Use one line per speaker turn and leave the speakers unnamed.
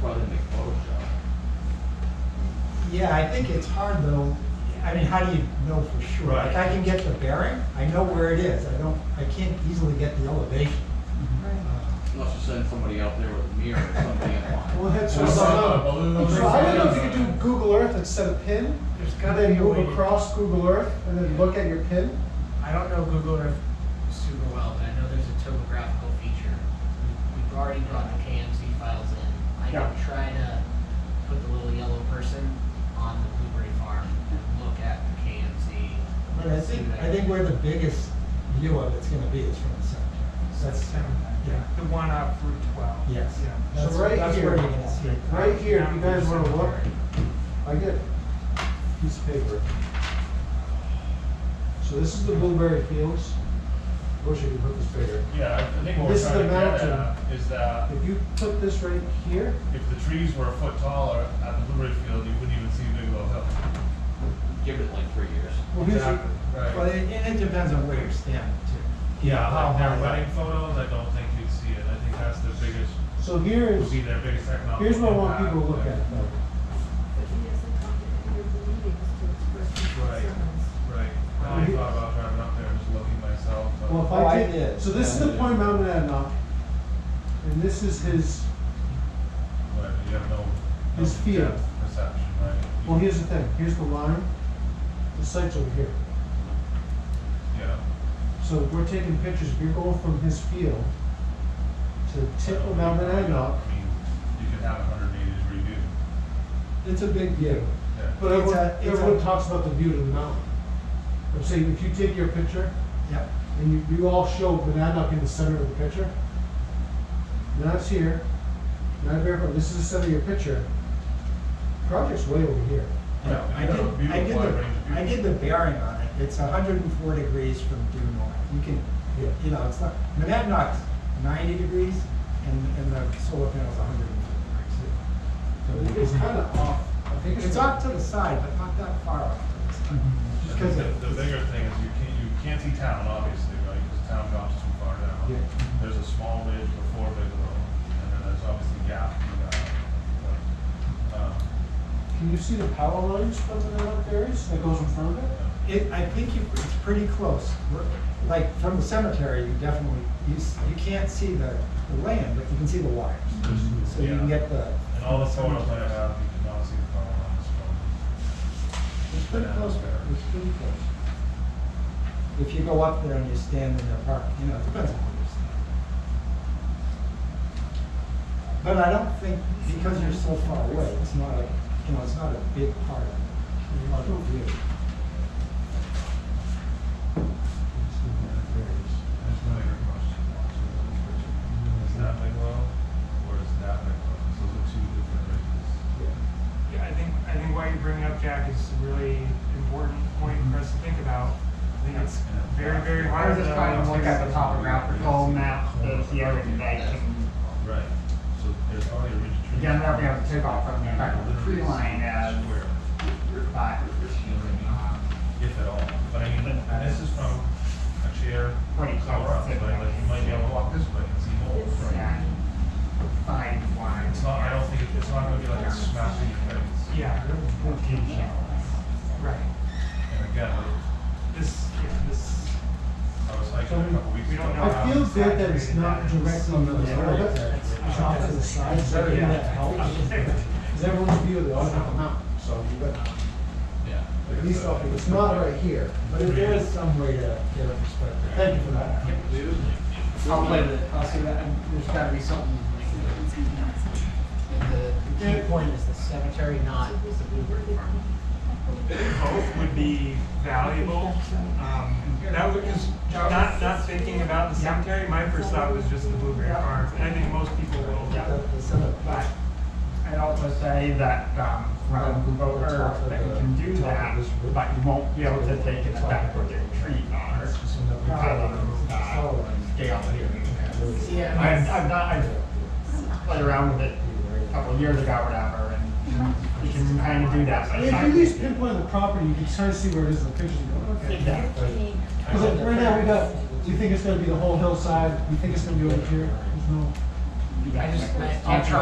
plug in the Photoshop.
Yeah, I think it's hard though, I mean, how do you know for sure?
Right.
Like, I can get the bearing, I know where it is, I don't, I can't easily get the elevation. Uh,
Unless you send somebody out there with a mirror or something and line.
We'll head
So
sort
it's
of
not a
up.
balloon.
So I don't know if you could do Google Earth and set a pin,
There's
and
gotta
then
be a
move
way.
across Google Earth and then look at your pin.
I don't know Google Earth super well, but I know there's a topographical feature. We've already brought the KMC files in. I
Yeah.
can try to put the little yellow person on the blueberry farm and look at the KMC.
But I think, I think where the biggest view of it's gonna be is from the cemetery.
That's
That's, yeah,
the one off Route 12.
yes.
Yeah.
That's,
right
that's where you're
here.
gonna see it.
Right here, if you guys wanna look, I get a piece of paper. So this is the blueberry fields. Wish I could put this bigger.
Yeah, I- I think what we're
This is
trying to
the
get
mountain.
at is that
If you put this right here,
if the trees were a foot taller at the Blueberry Field, you wouldn't even see Bigelow Hill.
Give it like three years.
well, here's, your-
Well,
Right.
and and it depends on where you're standing too.
Yeah,
How
like
high
their
up.
wedding photos, I don't think you'd see it. I think that's the biggest,
so here
would
is,
be their biggest economic.
here's what I want
impact
people to look
there.
at though.
But he doesn't come to any of the meetings to express his
Right.
concerns.
Right. I
Well,
thought about driving up there and just looking myself, but.
Well, if
Oh, I
I take,
did.
so this is the
Yeah.
point mountain Monadnock. And this is his,
Right, you have no.
His
no
field.
depth Perception, right? You-
well, here's the thing, here's the line. The site's over here.
Yeah.
So if we're taking pictures, if you're going from his field to the tip of Mount Monadnock,
I mean, you could have a hundred eighty degree view.
It's a big view.
Yeah.
but
It's
everyone,
a- it's
everyone
a-
talks about the view to the mountain. I'm saying, if you take your picture
Yep.
and you, you all show Monadnock in the center of the picture, now it's here, now Bear, this is the center of your picture. Project's way over here.
Yeah,
I
you
did,
got a
I did
beautiful wide range of
the,
views.
I did the bearing on it, it's hundred and four degrees from due north, you can,
Yeah.
you know, it's not, Monadnock's ninety degrees, and, and the solar panel's hundred and four degrees. So
It's kind of off. I think
It's it's off to the side, but not that far off to the side.
I
Just
think
'cause
the,
it-
the bigger thing is you can't, you can't see town, obviously, right, because town drops too far down.
Yeah. Mm-hmm.
There's a small ridge before Bigelow, and then there's obviously Gap, you got, um,
Can you see the power lines from Monadnock Dairies that goes in front of it?
It, I think you, it's pretty close, We're- like, from the cemetery, you definitely, you, s- you can't see the, the land, but you can see the wires.
there's-
So you can
Mm-hmm. yeah.
get the.
And all the photos that I have, you can not see the power lines from.
It's pretty close, it's pretty close. If you go up there and you stand in their park, you know, it depends on where you stand. But I don't think, because you're so far away, it's not a, you know, it's not a big part of, of the view.
That's the bigger question. Is that Bigelow, or is that Bigelow? So Those are two different ridges.
Yeah, I think, I think why you bring it up, Jack, is a really important point for us to think about. I think it's very, very
I
hard.
was just
to-
trying to look at the topographical map
that
that's here and that can,
Right, so there's already a ridge of trees.
again, they'll be able to take off from the back of the tree line as,
Square, you know what
but,
I mean?
um,
If at all, but I mean, and this is from a chair,
Pretty close
Colorado,
to
right, like you might be able to walk this way and see more.
It's,
yeah, five wide.
It's not, I don't think, it- it's not gonna be like a smash in your face.
Yeah, right.
And again, like,
This, yeah, this,
I was hiking a couple weeks
We
ago.
don't know
I feel good that it's not directly on the road, it's off to the side, is that
Yeah.
that helps? Because everyone's view of the other half mountain, so you got,
Yeah.
at least off, it's not right here.
But if there is some way to get a perspective.
Thank you for that.
I'll play the, I'll see that, and there's gotta be something. And the the key point is the cemetery, not the bluebird farm.
both would be valuable. Um, that would, cause not, not thinking about the cemetery, my first thought was just the blueberry farm, and I think most people will.
Yeah.
The- the center.
But I'd also say that, um, from Google Earth, that you can do that, but you won't be able to take it back where the tree are.
So the
Um,
problem,
uh,
solar and-
Scale here.
Yeah.
I've, I've not, I've played around with it a couple of years ago or whatever, and you can kind of do that, but
I
it's
mean, If
not.
you at least pinpoint the property, you can kind of see where it is in the picture, you go, okay.
Exactly.
Because like right now, we got, do you think it's gonna be the whole hillside, do you think it's gonna be over here? There's no.
I just,
I-
I'll try